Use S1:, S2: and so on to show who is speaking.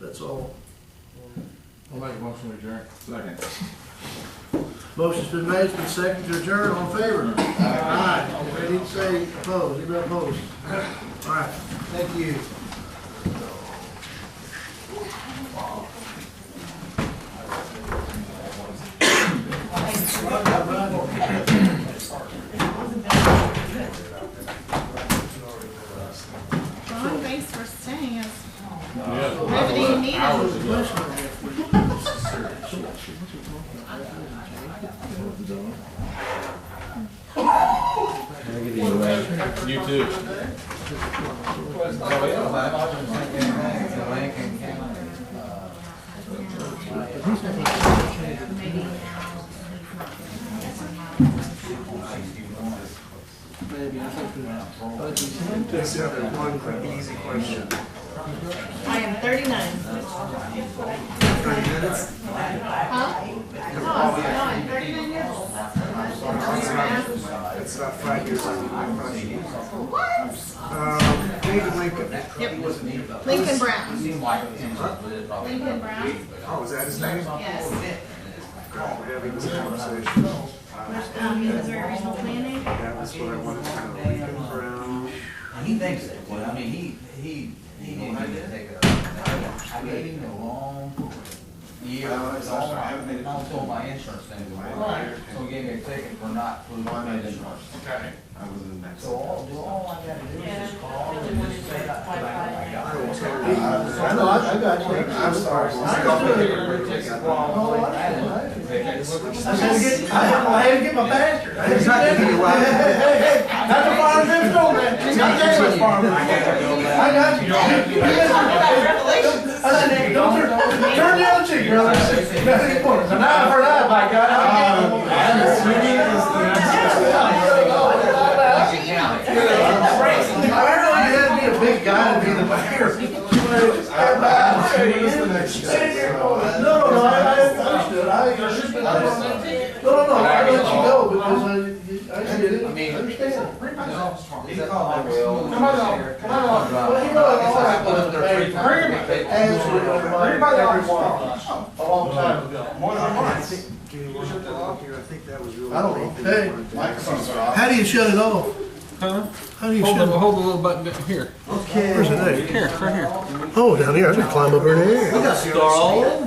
S1: that's all.
S2: I'll make a motion to adjourn. Second.
S1: Motion's been made, it's been seconded to adjourn, all in favor? Aye. I didn't say opposed, anybody opposed? All right, thank you.
S3: Ron Bates for staying as
S2: Yeah.
S3: riveting needed.
S2: You too.
S4: Just have one quick easy question.
S3: I am thirty-nine.
S4: Thirty minutes?
S3: Huh? No, I'm- no, Oh, I'm thirty-nine years old.
S4: It's not, it's not five years old, my question.
S3: What?
S4: Um,
S1: Uh,
S4: David Lincoln,
S3: Yep. Lincoln Brown. Lincoln Brown,
S4: oh, is that his name?
S3: yes.
S4: God, we're having this conversation.
S3: Um, Missouri Regional Planning.
S4: That was what I wanted to kind of leave it around.
S5: He thinks it, well, I mean, he, he, he didn't need to take it. I gave him the wrong year, wrong, I was told my insurance thing was wrong, so he gave me a ticket for not fulfilling the insurance.
S4: I was in the next.
S5: So all, all I gotta do is just call and just say that, I don't know,
S4: I will tell you.
S1: I know, I, I got you.
S4: I'm sorry.
S1: Oh, I, I,
S4: It's
S1: I had to get, I had to- I had to get my bastard. I had to get it. Hey, hey, hey, not the farm next door, man. Not David's farm. I got you. I said, don't turn, turn the other cheek, brother. Nothing for it. So now I heard that, by God. I really had to be a big guy to be the mayor.
S4: the next.
S1: No, no, no, I, I understood. I, I understood. No, no, no, I let you go because I, I did it. I understand.
S5: Come on, come on.
S1: Well, you know, I guess I put up there three
S5: times.
S1: Absolutely, everybody, a long time ago.
S4: Do you want to go here? I think that was really.
S1: I don't know. Hey,
S4: Microphone's
S1: How do you shut it off? How do you
S6: Hold
S1: shut
S6: the,
S1: it off?
S6: hold the little button down here.
S1: Where's it at?
S6: Here, right here.
S1: Oh, down here, I can climb up in the air.
S6: Stall.